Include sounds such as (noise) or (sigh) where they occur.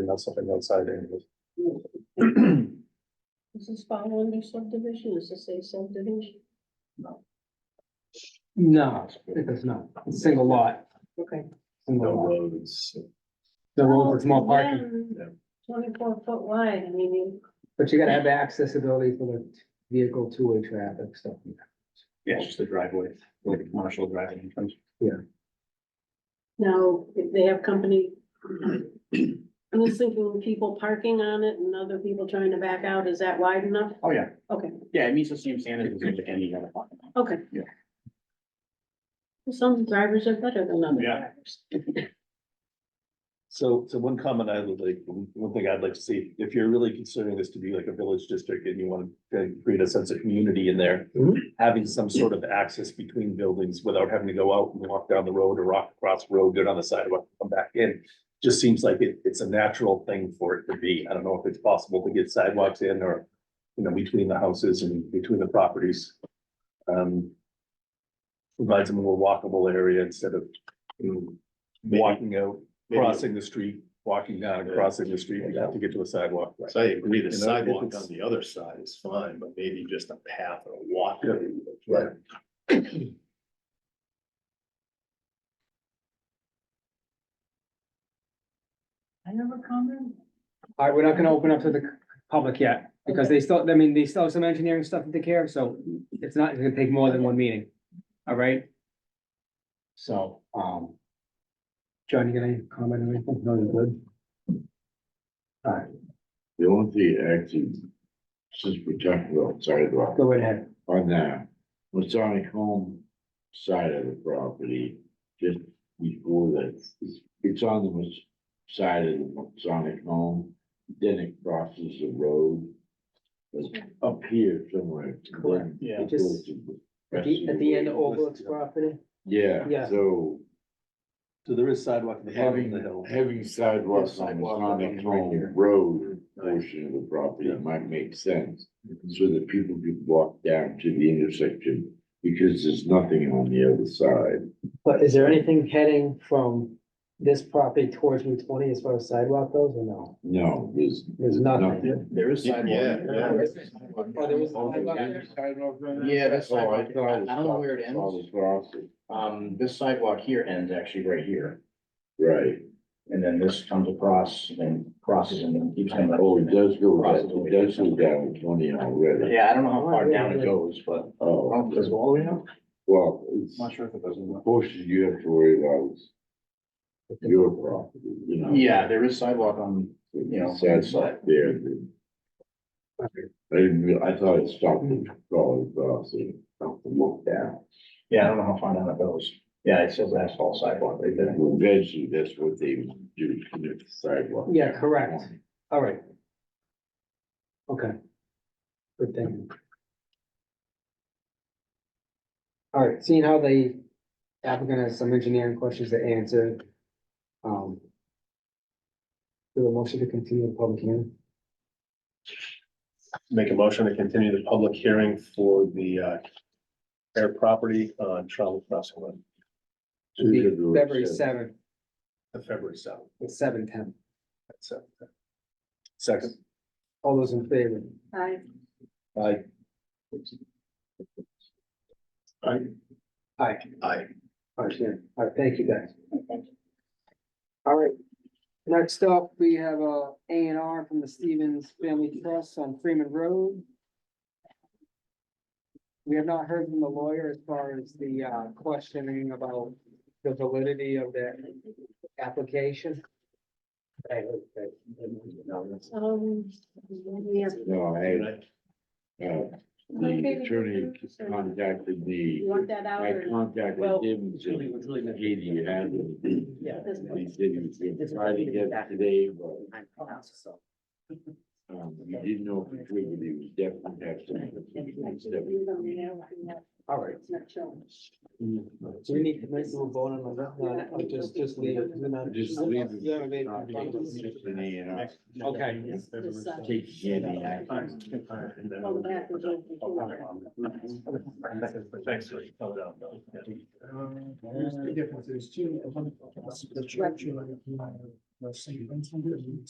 and not something outside (clears throat) anyway. This is fall under subdivision, is this a subdivision? No, it does not. It's a single lot. Okay. Single No lot. roads. The road for small parking, Yeah. Twenty-four foot wide, I mean, you- but you gotta have accessibility for the vehicle two-way traffic, stuff. like that. Yeah, it's just the driveway, like a commercial driving entrance. now, if they have company. (clears throat) I'm just thinking people parking on it and other people trying to back out, is that wide enough? Oh, yeah. Okay. Yeah, it meets the same standards as like any other parking lot. Okay. Yeah. Some drivers are better than other Yeah. drivers. So, so one comment I would like, one thing I'd like to see, if you're really considering this to be like a village district and you want to create a sense of community in there. Mhm. Having some sort of access between buildings without having to go out and walk down the road or walk across the road, go down the sidewalk, come back in. Just seems like it, it's a natural thing for it to be. I don't know if it's possible to get sidewalks in or, you know, between the houses and between the properties. Um. Provides a more walkable area instead of mm, Maybe- walking out maybe- crossing the street, walking down, and crossing the street, you have to get to a sidewalk. So I agree, You the know, if sidewalk it's- on the other side is fine, but maybe just a path or a walk. Yeah. Right. I have a comment. All right, we're not gonna open up to the public yet, because they still, I mean, they still have some engineering stuff to take care of, so it's not, it's gonna take more than one meeting. All right? So, um. John, you got any comment or anything? No, you're good. The only thing actually, since we're talking about sidewalk, Go right ahead. on the Masonic home side of the property, just before that, it's- it's on the Mas- side of the Masonic home, then it crosses the road. It's up here somewhere. then Correct. Yeah. it goes to the At rest the, of at the end of way. Old Oak's property, Yeah. Yeah, so So there is sidewalk at the bottom of having, the hill. having sidewalks on the Sidewalk on the Masonic right here. Mm, home road portion of the property might make sense. Mm-hmm. so that people could walk down to the intersection, because there's nothing on the other side. but is there anything heading from this property towards Route twenty as far as sidewalk goes, or no? No, there's. There's nothing. There is Yeah, sidewalk. yeah. Oh, there was a Oh, sidewalk there's there? sidewalk there? Yeah, that's Oh, sidewalk. thought I- was I don't know where it all ends. across it. Um, this sidewalk here ends actually right here, Right, and then this comes across and then crosses and then keeps coming. up. oh, it does go, Across down- the way. it does go down twenty already. Yeah, I don't know how far down it goes, but. Oh, Does it go all the way down? well, it's, Not sure if it doesn't. portion you have to worry about is your property, you know. Yeah, there is sidewalk on, you know, Sad side there. that- I didn't, real- I thought it stopped and crawled across and stopped and walked down. yeah, I don't know how far down it goes. Yeah, it says asphalt sidewalk right there. Well, Eventually, that's what they do, connect the sidewalk. Yeah, correct. All right. Okay. Good thing. All right, seeing how the applicant has some engineering questions to answer. Um. Do a motion to continue the public hearing. Make a motion to continue the public hearing for the uh air property on Charlotte Crossing Road, Be February seventh, the February seventh. it's seven ten. That's it. Second, All those in favor? I, I, Aye. Aye. All right, yeah. All right, thank you guys. All right. Next up, we have a A and R from the Stevens Family Trust on Freeman Road. We have not heard from the lawyer as far as the uh, questioning about the validity of that application. um, yeah. No, I, had, Right. uh, the attorney contacted me, You want that out I or? contacted Well, him and said, Katie, you have it. Yeah. at this He point. said he was gonna try to get it today, but, um, he didn't know for sure, but he was definitely have some. All right. It's not showing. Do we need to make a vote on that? No, I'll Just, just leave. it. We're not- Just leave it. Yeah, maybe. Okay. It's this side. Take any E. action. Well, the back is open too. Thanks.